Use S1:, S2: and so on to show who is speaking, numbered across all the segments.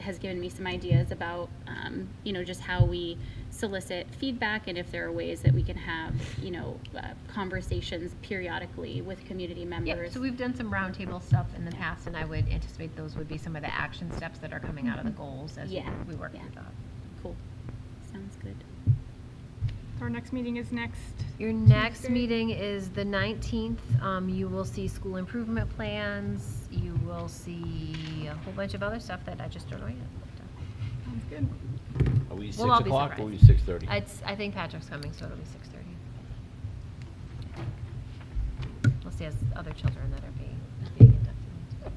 S1: has given me some ideas about, um, you know, just how we solicit feedback and if there are ways that we can have, you know, uh, conversations periodically with community
S2: Yeah,
S1: members.
S2: so we've done some roundtable stuff in the past, and I would anticipate those would be some of the action steps that are coming out of the goals as
S1: Mm-hmm. Yeah,
S2: we work
S1: yeah.
S2: through that.
S1: Cool. Sounds good.
S3: Our next meeting is next.
S2: Your next
S3: Tuesday.
S2: meeting is the 19th. Um, You will see school improvement plans. You will see a whole bunch of other stuff that I just don't know yet.
S3: Sounds good.
S4: Are we six
S2: We'll all be
S4: o'clock or are we
S2: surprised.
S4: six thirty?
S2: It's, I think Patrick's coming, so it'll be 6:30. Unless he has other children that are being being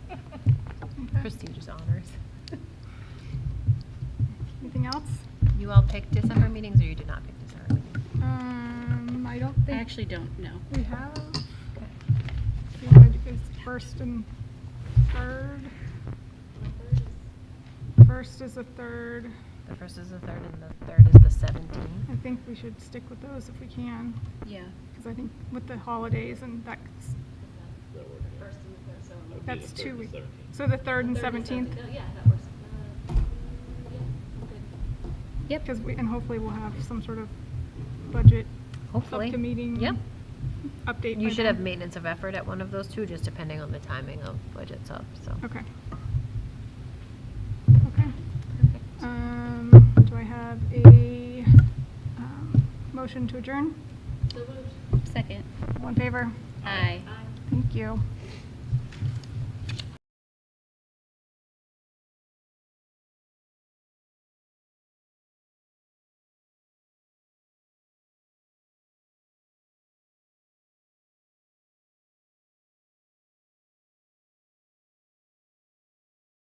S2: inducted.
S3: Okay.
S2: Prestigious honors.
S3: Anything else?
S2: You all picked December meetings, or you did not pick December meetings?
S3: Um, I don't
S1: I
S3: think
S1: actually don't know.
S3: we have.
S2: Okay.
S3: We had this First and third. First is the third.
S2: The first is the third, and the third is the
S3: I
S2: seventeenth.
S3: think we should stick with those if we can,
S1: Yeah.
S3: because I think with the holidays and that's, that's two weeks. So the third and seventeenth,
S1: Yep.
S3: because we, and hopefully we'll have some sort of budget
S2: Hopefully.
S3: Up to meeting.
S2: Yep.
S3: update.
S2: You
S3: by
S2: should have
S3: then.
S2: maintenance of effort at one of those two, just depending on the timing of budgets up, so.
S3: Okay. Okay. Um, do I have a, um, motion to adjourn?
S1: Second.
S3: All in favor?
S1: Aye.
S3: Thank you.